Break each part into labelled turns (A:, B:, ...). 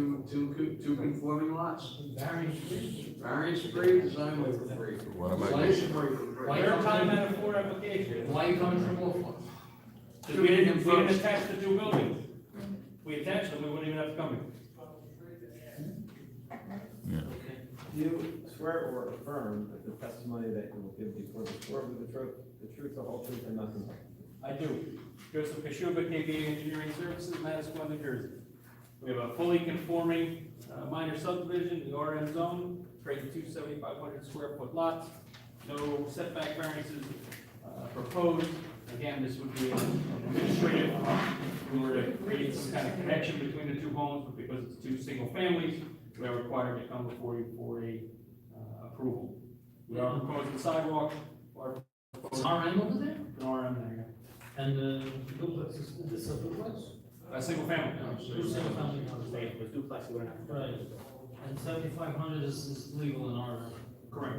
A: two, co- two conforming lots,
B: Variance free.
A: variance free, design waiver free.
C: What am I,
A: Installation waiver
B: Why
A: free.
B: you're talking about a four application?
A: Why you coming from Wolf?
B: 'Cause we didn't, we didn't attach the two buildings. We attached them, we wouldn't even have to come here.
D: Do you swear or affirm that the testimony that you will give before the board will be the truth, the truth, the whole truth, and nothing but?
B: I do. Joseph Kashuba, KBA Engineering Services, Madison, New Jersey. We have a fully conforming uh, minor subdivision, in the RM zone, creating two 7,500 square foot lots. No setback variances uh, proposed. Again, this would be an administrative, we were to create some kind of connection between the two homes, but because it's two single families, we are required to come before you for a uh, approval. We are proposing sidewalk, or
A: Is RM over there?
B: an RM area.
E: And uh, duplex is, this a duplex?
B: A single family.
E: Two single family houses, right?
F: Right, with duplex, we're not.
E: Right. And seventy-five hundred is, is legal in our.
B: Correct.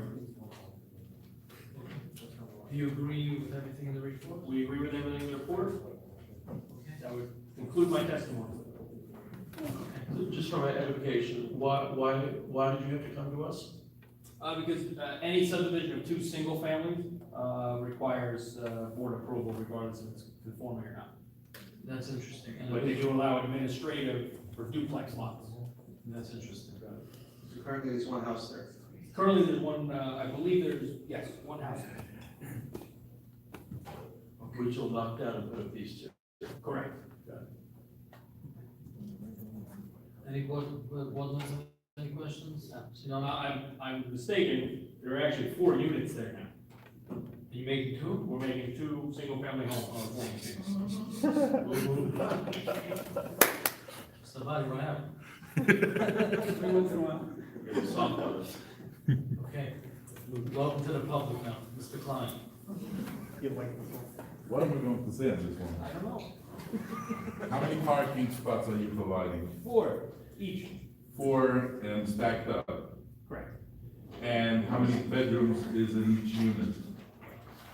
E: Do you agree with everything in the report?
B: We agree with everything in the report? That would conclude my testimony.
G: Just for my education, why, why, why did you have to come to us?
B: Uh, because, uh, any subdivision of two single families, uh, requires, uh, board approval regardless if it's conforming or not.
E: That's interesting. And
B: But they do allow administrative for duplex lots.
E: That's interesting.
D: Currently, there's one house there.
B: Currently, there's one, uh, I believe there's, yes, one house.
G: Which will knock down and put up these two.
B: Correct.
E: Any, what, what, was it? any questions? So
B: Now,
E: now,
B: I'm, I'm mistaken, there are actually four units there now.
E: you making two?
B: We're making two single-family homes, uh, four
E: Somebody, what happened?
B: units. We went through one.
E: Okay, welcome to the public now, Mr. Klein.
C: what am I going to say on this one?
B: I don't know.
C: How many parking spots are you providing?
B: Four each.
C: Four and stacked up.
B: Correct.
C: And how many bedrooms is in each unit?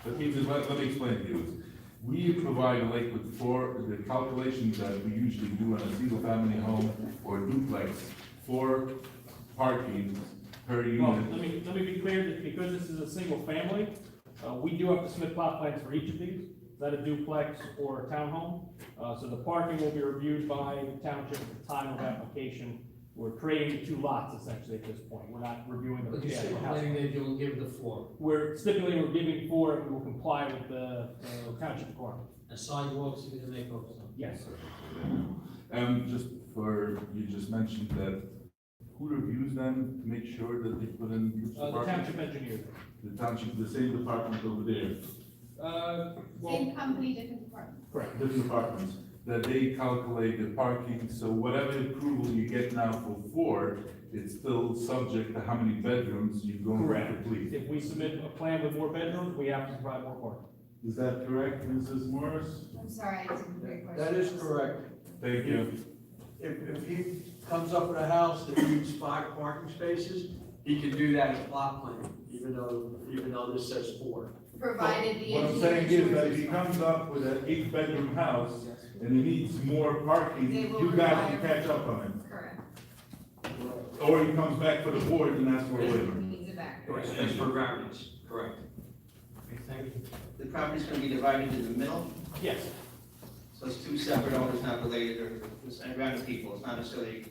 C: Let me, just- let, let me explain to you. We provide a lake with four, the calculations that we usually do on a single family home or duplex, four parking per
B: Well,
C: unit.
B: let me, let me be clear that because this is a single family, uh, we do have to submit plot plans for each of these. Is that a duplex or a townhome? Uh, so the parking will be reviewed by the township at the time of application. We're creating two lots essentially at this point. We're not reviewing the.
E: But you're
B: actual house.
E: stipulating that you will give the floor,
B: We're stipulating we're giving four and we will comply with the uh, township requirement.
E: and sidewalks you're gonna make over some.
B: Yes.
C: Um, just for, you just mentioned that, who reviews them to make sure that they put in which
B: Uh, the
C: department?
B: township engineer.
C: The township, the same department over there,
B: Uh, well,
H: Same company, different department.
B: correct.
C: different departments, that they calculate the parking, so whatever approval you get now for four, it's still subject to how many bedrooms you're going to
B: Correct.
C: complete.
B: If we submit a plan with more bedrooms, we have to provide more parking.
C: Is that correct, Mrs. Morris?
H: I'm sorry, I didn't hear your question.
A: That is correct.
C: Thank you.
A: If, if he comes up with a house that needs five parking spaces, he can do that in plot plan, even though, even though this says four.
H: Provided the.
C: What I'm saying is that if he comes up with an eight-bedroom house and he needs more parking,
H: They will
C: you guys can
H: require-
C: catch up on it.
H: Correct.
C: Or he comes back for the board and asks for a waiver.
H: Needs a back.
A: That's for variance, correct.
E: Thank you.
I: The property's gonna be divided in the middle,
B: Yes.
I: so it's two separate owners, not related, or it's random people, it's not necessarily,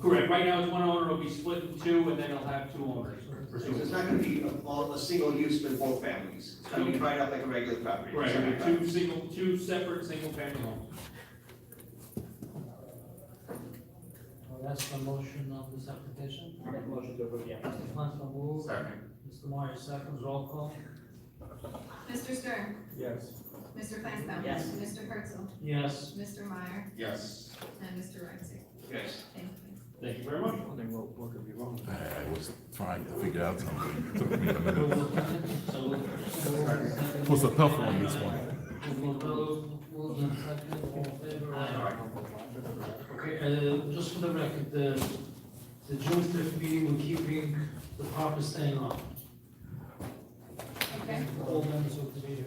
B: Correct, right now it's one owner, it'll be split in two, and then it'll have two owners.
I: so it's not gonna be a- all, a single use for both families. It's gonna be divided up like a regular property.
B: Right,
I: separate
B: it'll be two single, two separate single-family homes.
E: Well, that's the motion of this application.
F: Motion to approve, yeah.
E: Mr. Flansman moves,
I: Second.
E: Mr. Meyer seconds, roll call.
H: Mr. Stern,
B: Yes.
H: Mr. Flansbrough.
F: Yes.
H: Mr. Herzl,
E: Yes,
H: Mr. Meyer,
I: Yes.
H: and Mr. Reitz.
I: Yes.
H: Thank you.
B: Thank you very much.
C: I was trying to figure out something, it took me a
E: we'll,
C: minute.
E: so.
C: Was a tough one, this one.
E: We'll go, we'll then second, all in favor. Aye. Okay, uh, just for the record, the, the June fifth meeting, we're keeping the proper staying on.
H: Okay,
E: All members of the meeting.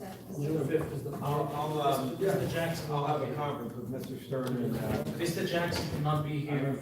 H: that was-
E: June fifth is the.
D: I'll, I'll, um,
E: Mr. Jackson,
D: I'll have a conference with Mr. Stern and, uh,
E: Mr. Jackson cannot be here.